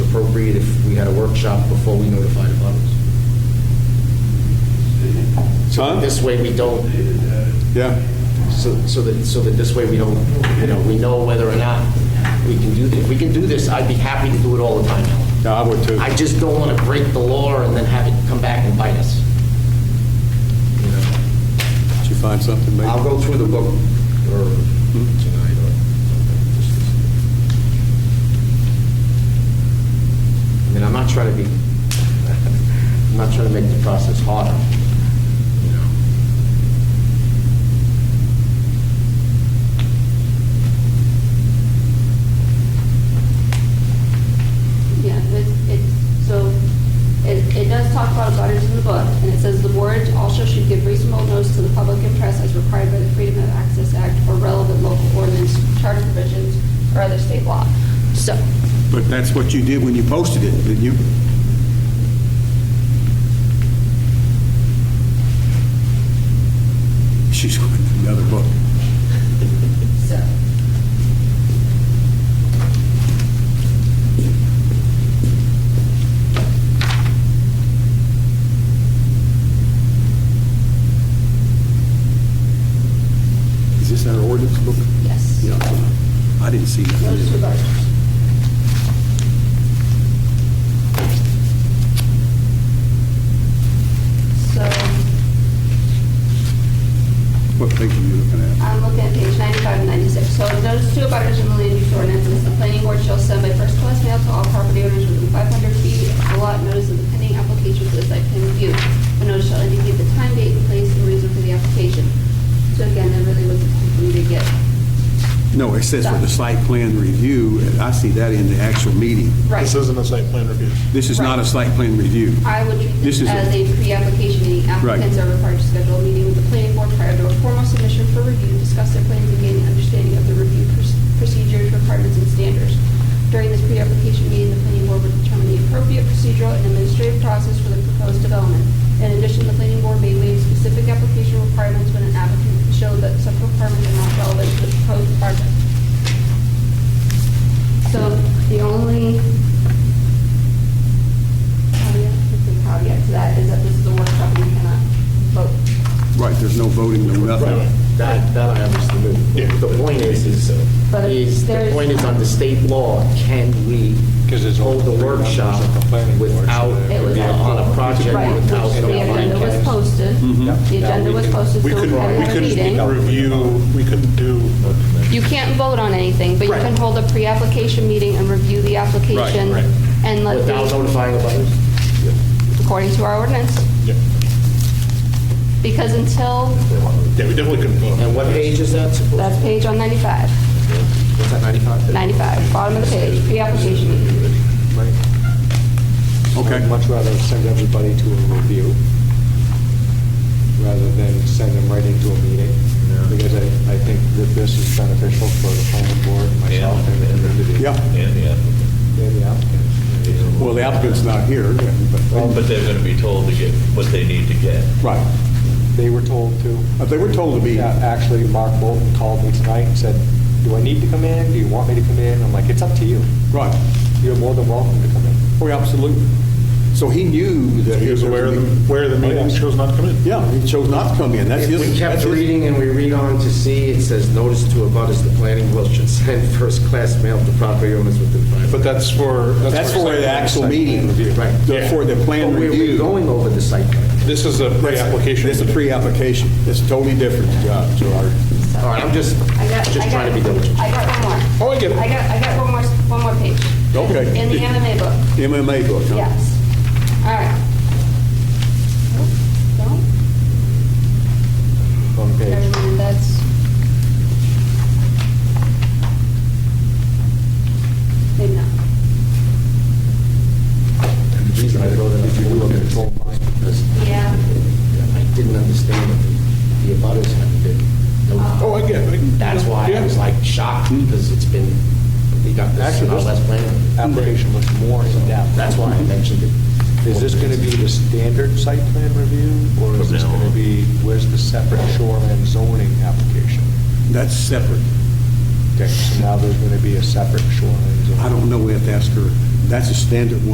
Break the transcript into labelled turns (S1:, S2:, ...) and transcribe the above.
S1: at a workshop before we notify the butters.
S2: Son?
S1: This way we don't,
S2: Yeah.
S1: so so that, so that this way we don't, you know, we know whether or not we can do this. If we can do this, I'd be happy to do it all the time. Alan.
S2: No, I would too.
S1: I just don't want to break the law and then have it come back and bite us. You know?
S2: Did you find something, maybe?
S1: I'll go through the book or tonight or something. just to- I mean, I'm not trying to be, I'm not trying to make the process harder, you know?
S3: Yeah, it, it, so, it, it does talk about abutters in the book, and it says the board also should give reasonable notice to the public and press as required by the Freedom of Access Act or relevant local ordinance, charter provisions, or other state law. So,
S2: But that's what you did when you posted it, didn't you? She's going to another book.
S3: so,
S2: Is this our ordinance book?
S3: yes.
S2: Yeah. I didn't see
S3: Those two
S2: that.
S3: abutters. So,
S2: What page are you looking at?
S3: I'm looking at page 95 and 96. So those two abutters in the land use ordinance, is the planning board shall send by first class mail to all property owners within 500 feet of the lot notice of the pending application for the site plan review. The notice shall indicate the time, date, and place, and reason for the application. So again, that really was hoping to get.
S2: No, it says for the site plan review, and I see that in the actual meeting.
S3: Right.
S4: This isn't a site plan review.
S2: This is not a
S3: Right.
S2: site plan review.
S3: I would treat
S2: This is
S3: this
S2: a-
S3: as a pre-application meeting. Applicants are required to schedule a meeting with the planning board prior to a formal submission for review, discuss their plans, and gain an understanding of the review proc- procedures, requirements, and standards. During this pre-application meeting, the planning board would determine the appropriate procedural and administrative process for the proposed development. In addition, the planning board may waive specific application requirements when an applicant can show that such requirements are not relevant to the proposed project. So the only caveat, let's say caveat to that is that this is a workshop and we cannot vote.
S2: Right, there's no voting, no
S1: Right,
S2: nothing.
S1: that, that I understand. The point is, is,
S3: But
S1: is, the
S3: there's-
S1: point is on the state law, can we
S5: 'Cause it's all
S1: hold the
S5: three members
S1: workshop
S5: of the planning board, so
S1: without,
S5: there
S3: would be-
S1: on a project
S3: Right, which
S1: without
S3: the agenda
S1: notifying?
S3: was posted, the agenda was posted, so
S4: We
S3: we
S4: couldn't, we
S3: had a meeting.
S4: couldn't review, we couldn't do,
S3: You can't vote on anything, but you can hold a pre-application meeting and review the application
S4: right.
S3: and let
S1: Without
S3: the,
S1: notifying the butters?
S3: according to our ordinance,
S4: yeah,
S3: because until,
S4: Yeah, we definitely couldn't vote.
S1: And what page is that supposed?
S3: that's page on 95,
S1: What's that, 95?
S3: 95, bottom of the page, pre-application meeting.
S2: Okay.
S5: I'd much rather send everybody to a review rather than send them right into a meeting. Because I, I think that this is beneficial for the planning board, myself, and the community.
S2: Yeah,
S6: And the applicant.
S5: And the applicants.
S2: well, the applicant's not here, but,
S6: But they're going to be told to get what they need to get.
S2: right.
S5: They were told to.
S2: Uh, They were told to be,
S5: Yeah, Actually, Mark Bolton called me tonight and said, do I need to come in? Do you want me to come in? I'm like, it's up to you.
S2: right,
S5: You're more than welcome to come in.
S2: oh, absolutely. So he knew that.
S4: He was aware of the, aware of the meeting, chose not to come in.
S2: Yeah, he chose not to come in, that's
S1: If
S2: his.
S1: we
S2: that's
S1: kept
S2: his-
S1: reading and we read on to see, it says, notice to abutters, the planning board should send first-class mail to property owners within five.
S4: But that's for,
S2: That's
S4: that's for.
S2: for the actual meeting,
S1: Right.
S2: The- for the plan
S1: But we're-
S2: review.
S1: We're going over the site plan.
S4: This is a pre-application.
S2: It's a pre-application, it's totally different, John, so our-
S1: All right, I'm just,
S3: I got- I
S1: just
S3: got-
S1: trying to be diligent.
S3: I got one more.
S4: Oh, I get it.
S3: I got, I got one more, one more page.
S2: Okay.
S3: In the MMA book,
S2: MMA book, huh?
S3: yes. All right. Nope, Don't,
S5: One page.
S3: never mind, that's. Maybe not.
S1: And the reason I wrote it, if you look at it, because
S3: Yeah.
S1: I didn't understand what the- the abutters had been. notified.
S4: Oh, I get it.
S1: That's why I was like shocked, because it's been, we got this
S5: Actually,
S1: in our
S5: this-
S1: last plan.
S5: Application was more in-depth.
S1: That's why I mentioned it.
S5: Is this going to be the standard site plan review, or is
S6: From
S5: this
S6: now
S5: going
S6: on.
S5: to be, where's the separate shoreline zoning application?
S2: That's separate.
S5: Okay, so now there's going to be a separate shoreline zoning.
S2: I don't know if that's her, that's a standard one.